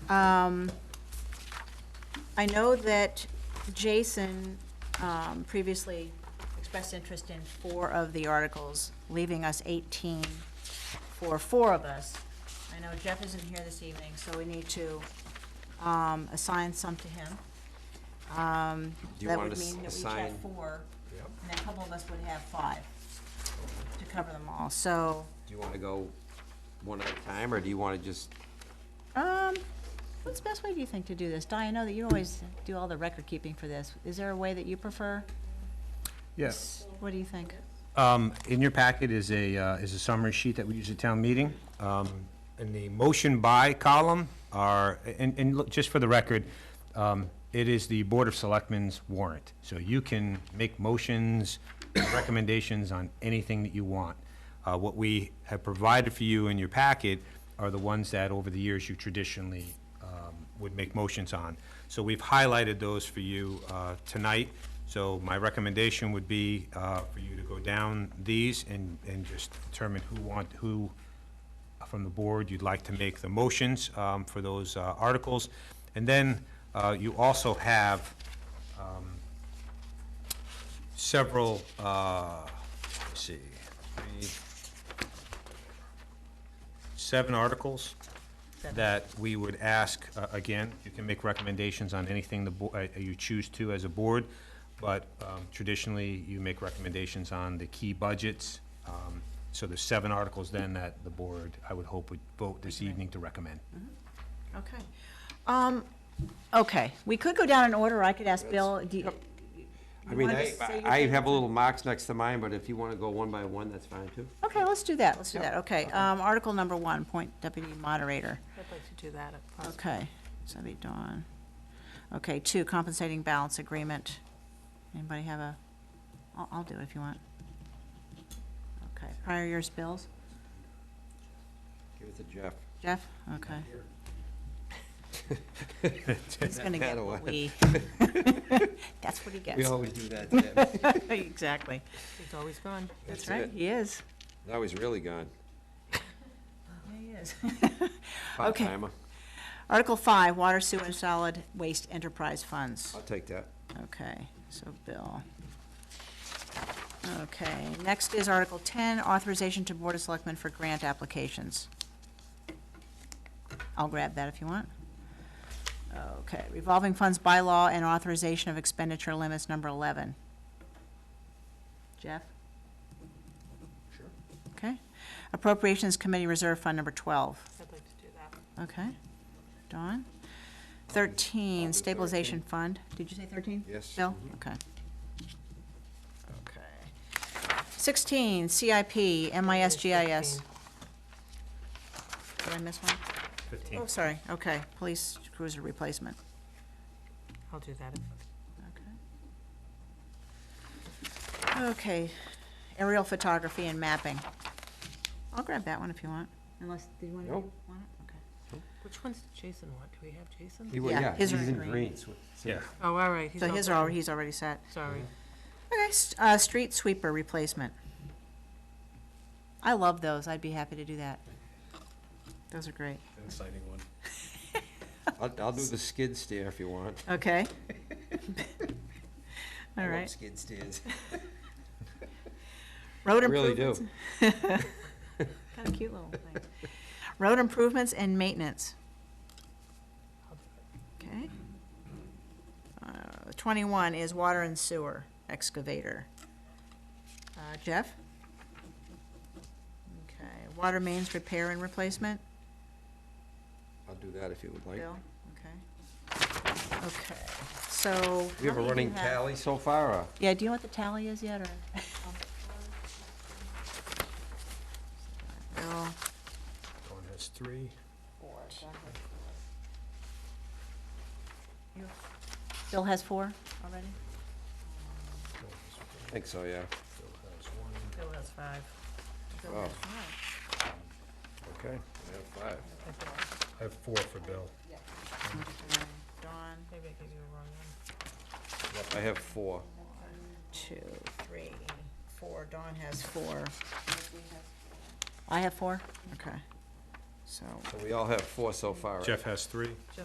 Um, I know that Jason um, previously expressed interest in four of the articles, leaving us 18 for four of us. I know Jeff isn't here this evening, so we need to um, assign some to him. Um, Do you That want would us mean that we each assign- have four, and then a couple of us would have five to cover them all. So, Do you want to go one at a time, or do you want to just, um, what's the best way, do you think, to do this? Di, I know that you always do all the record keeping for this. Is there a way that you prefer? Yes. What do you think? Um, In your packet is a, uh, is a summary sheet that we use at town meeting. Um, In the motion by column are, and, and look, just for the record, um, it is the Board of Selectmen's warrant. So you can make motions, recommendations on anything that you want. Uh, What we have provided for you in your packet are the ones that over the years you traditionally um, would make motions on. So we've highlighted those for you uh, tonight. So my recommendation would be uh, for you to go down these and, and just determine who want, who from the board you'd like to make the motions um, for those uh, articles. And then uh, you also have um, several, uh, let's see, three, seven articles that we would ask, uh, again, you can make recommendations on anything the, bo- uh, you choose to as a board, but um, traditionally, you make recommendations on the key budgets. Um, So there's seven articles then that the board, I would hope, would vote this evening to recommend. Okay. Um, okay, we could go down in order. I could ask Bill, do you? I mean, wanna I, just say your I thing? have a little marks next to mine, but if you want to go one by one, that's fine too. Okay, let's do that, let's do that, okay. Um, article number one, point deputy moderator. I'd like to do that if possible. Okay, so that'd be Dawn. Okay, two, compensating balance agreement. Anybody have a, I'll, I'll do it if you want. Okay, prior year's bills, Give it to Jeff. Jeff, okay. He's gonna get what we, that's what he We gets, always do that to them. exactly. He's always gone. That's right, he is. That was really gone. Yeah, He is. Okay. Part-timer. Article five, water, sewer, and solid waste enterprise funds. I'll take that. Okay, so Bill. Okay, next is Article ten, authorization to Board of Selectmen for grant applications. I'll grab that if you want. Okay, revolving funds bylaw and authorization of expenditure limits, number eleven. Jeff? Sure. Okay. Appropriations Committee Reserve Fund, number twelve. I'd like to do that. Okay. Dawn? Thirteen, stabilization fund. Did you say thirteen? Yes. Mm-hmm. Bill? Okay. Okay. Sixteen, CIP, MISGIS. Did I miss one? Fifteen. Oh, sorry. Okay, police cruiser replacement. I'll do that if, Okay. Okay, aerial photography and mapping. I'll grab that one if you want, unless, did you want to? Nope. Want it? Okay. which ones did Jason want? Do we have Jason? He wa- Yeah, his are he's in in green. green. so- so- Yeah. Oh, all right. So all his done. are, already- he's already set. Sorry. Okay, s- uh, street sweeper replacement. I love those, I'd be happy to do that. Those are great. Exciting one. I'll, I'll do the skid steer if you want. Okay. I All love right. Skid steers. Road I really improvements. do. Kind of cute little thing. Road improvements and maintenance. Okay. Uh, Twenty-one is water and sewer excavator. Uh, Jeff? Okay, water mains repair and replacement. I'll do that if you would like. Bill, okay. Okay, so. We have how many a do running have? tally so far, or? Yeah, do you know what the tally is yet, or? Bill, Dawn has three. Bill has four already? Dawn has I think so, yeah. Phil has one. Bill has five. Bill Oh. has five. Okay. I have five. I have four for Bill. Okay, Dawn, Maybe I gave you the wrong one. I have four. two, three, four, Dawn has four. I have four, okay. So, So we all have four so far, right? Jeff has three.